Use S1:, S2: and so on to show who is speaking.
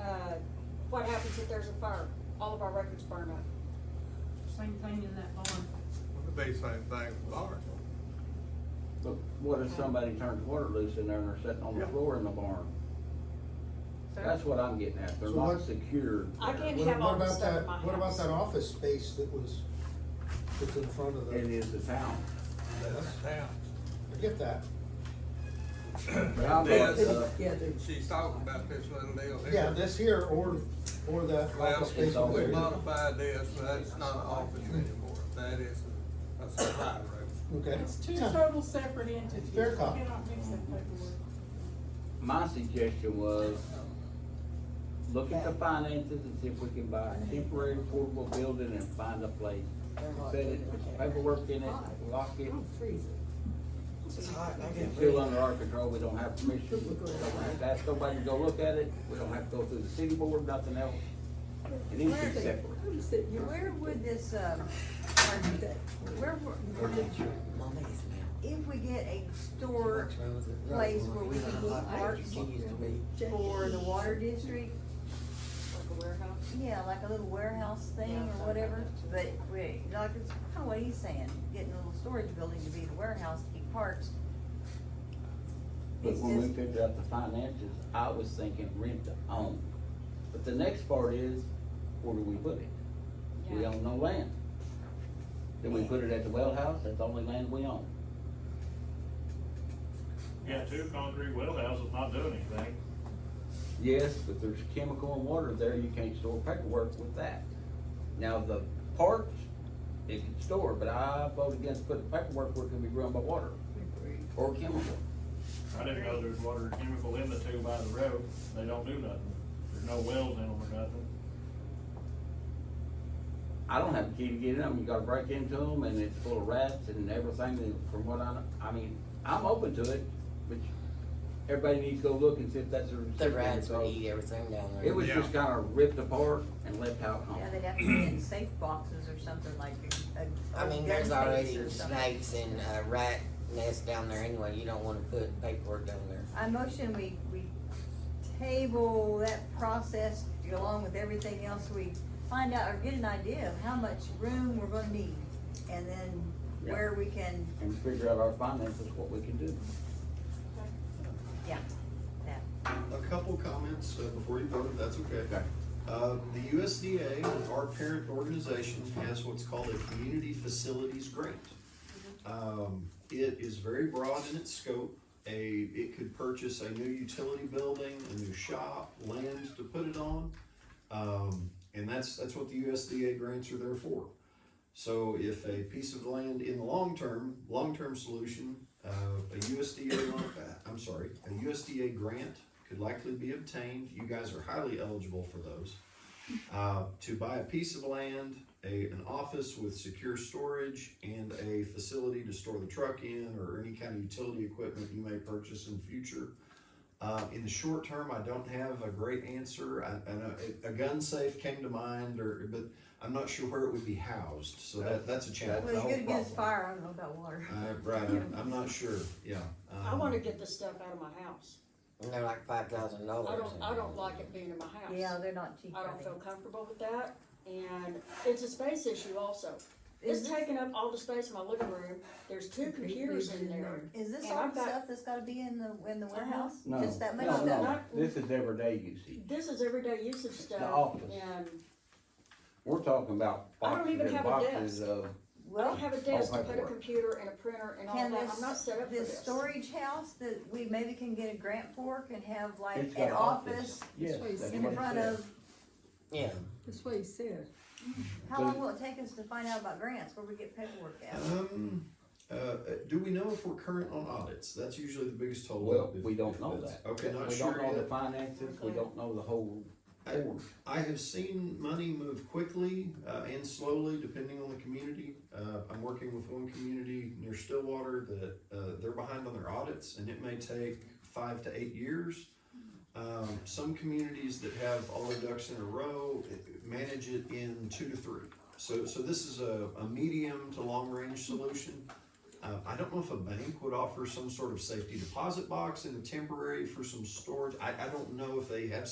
S1: uh, What happens if there's a fire? All of our records burn up.
S2: Same thing in that bond.
S3: It'd be same thing with ours.
S4: But what if somebody turns water loose in there and they're sitting on the
S3: Yeah.
S4: floor in the barn?
S2: So-
S4: That's what I'm getting at, they're
S5: So
S4: not
S5: what-
S4: secured.
S1: I
S4: there.
S1: can't
S5: What-
S1: have
S5: what
S1: all this
S5: about
S1: stuff
S5: that-
S1: in my
S5: What about
S1: house.
S5: that office space that was, that's in front of the?
S4: It is the town.
S3: That's town.
S5: I get that.
S4: But I'm
S3: This-
S4: not, uh,
S6: Yeah, they-
S3: She's talking about this little deal here.
S5: Yeah, this here or, or that
S3: Well,
S5: office space.
S4: it's all
S3: we
S5: over there.
S3: modified this, but that's not an office anymore. That is a- a supply room.
S5: Okay.
S2: It's two
S5: Yeah.
S2: total separate entities.
S5: Fair cop.
S2: You cannot mix that paperwork.
S4: my suggestion was, look at the finances and see if we can buy a temporary portable building and find a place. Set it, put the paperwork in it, lock it,
S6: I'm freezing.
S7: It's hot, and I can't
S4: it's still
S7: breathe.
S4: under our control, we don't have permission. We don't have to ask nobody to go look at it, we don't have to go through the city board, nothing else. It needs to be separate.
S6: Where- Where would this, um, where, where,
S7: Mama is now.
S6: if we get a store place where we can
S7: Hot
S6: keep
S7: as
S6: parts
S7: she used to be.
S6: for the water district,
S1: Like a warehouse.
S6: yeah, like a little warehouse thing or whatever, but we, like, it's kinda what he's saying, getting a little storage building to be the warehouse to keep parts.
S4: But
S6: It's
S4: when we
S6: just-
S4: figured out the finances, I was thinking rent to own. But the next part is, where do we put it? We
S1: Yeah.
S4: own no land. Then we put it at the well house, that's the only land we own.
S8: Yeah, two concrete well houses not doing anything.
S4: Yes, but there's chemical and water there, you can't store paperwork with that. Now, the parks, it can store, but I vote against putting paperwork where it can be run by water or chemical.
S8: I didn't know there's water and chemical in the two by the road. They don't do nothing. There's no wells in them or nothing.
S4: I don't have a key to get in them, you gotta break into them, and it's full of rats and everything, and from what I, know, I mean, I'm open to it, but everybody needs to go look and see if that's a.
S7: The rats would eat everything down there.
S4: It was just
S3: Yeah.
S4: kinda ripped apart and left out home.
S6: Yeah, they'd have to be in safe boxes or something like a, a.
S7: I
S6: a
S7: mean,
S6: gun
S7: there's
S6: case
S7: already
S6: or something.
S7: snakes and uh, rat nests down there anyway. You don't wanna put paperwork down there.
S6: I motion we, we table that process along with everything else we find out or get an idea of how much room we're gonna need. And then
S4: Yeah.
S6: where we can,
S4: And figure out our finances, what we can do.
S6: yeah, that.
S9: A couple comments uh, before you vote, if that's okay. Uh, The USDA, our parent organization, has what's called a community facilities grant. Um, It is very broad in its scope. A, it could purchase a new utility building, a new shop, land to put it on. Um, And that's, that's what the USDA grants are there for. So if a piece of land in the long term, long-term solution, uh, a USDA, loan- uh, I'm sorry, a USDA grant could likely be obtained, you guys are highly eligible for those. Uh, to buy a piece of land, a, an office with secure storage and a facility to store the truck in or any kind of utility equipment you may purchase in future. Uh, in the short term, I don't have a great answer. I, I know it- a gun safe came to mind, or but I'm not sure where it would be housed. So that that's a challenge.
S6: Well, you're
S9: That
S6: gonna
S9: whole
S6: get us
S9: problem.
S6: fire, I don't know about water.
S9: Uh, right, I'm, I'm not sure. Yeah.
S1: I
S9: um,
S1: wanna get this stuff out of my house.
S7: And they're like five thousand dollars.
S1: I don't, I don't like it being in my house.
S6: Yeah, they're not cheap.
S1: I
S6: are
S1: don't
S6: they?
S1: feel comfortable with that, and it's a space issue also.
S6: Is
S1: It's
S6: this-
S1: taking up all the space in my living room, there's two computers in there.
S6: Is this
S1: and
S6: all
S1: I've
S6: the
S1: got- Uh-huh.
S6: stuff that's gotta be in the, in the warehouse?
S4: No,
S6: Just that much
S4: no,
S6: stuff?
S4: no, this is everyday usage.
S1: This is everyday usage stuff,
S4: office.
S1: and
S4: We're talking about
S1: I don't
S4: boxes
S1: even
S4: and
S1: have a
S4: boxes
S1: desk.
S4: of,
S1: I don't
S6: Well,
S1: have a desk to put a
S4: paperwork.
S1: computer and a printer and all
S6: can
S1: that, I'm not
S6: this,
S1: set up for
S6: this
S1: this.
S6: storage house that we maybe can get a grant for can have
S4: it's
S6: like
S4: got
S6: an
S4: an
S6: office
S4: office. Yes,
S10: That's what he
S4: that's
S10: said.
S6: in
S4: what it
S6: front
S4: says.
S6: of
S7: Yeah.
S10: That's what he said.
S6: How
S4: But-
S6: long will it take us to find out about grants, where we get paperwork at?
S9: Um, uh, uh, do we know if we're current on audits? That's usually the biggest total.
S4: Well, we don't know that.
S9: Okay, not
S4: We
S9: sure
S4: don't know the
S9: yet.
S4: finances, we don't know the whole
S9: I-
S4: board.
S9: I have seen money move quickly uh, and slowly depending on the community. Uh, I'm working with one community near Stillwater that uh, they're behind on their audits and it may take five to eight years. Um, some communities that have all their ducks in a row eh, manage it in two to three. So, so this is a, a medium to long range solution. Uh, I don't know if a bank would offer some sort of safety deposit box and a temporary for some storage. I, I don't know if they have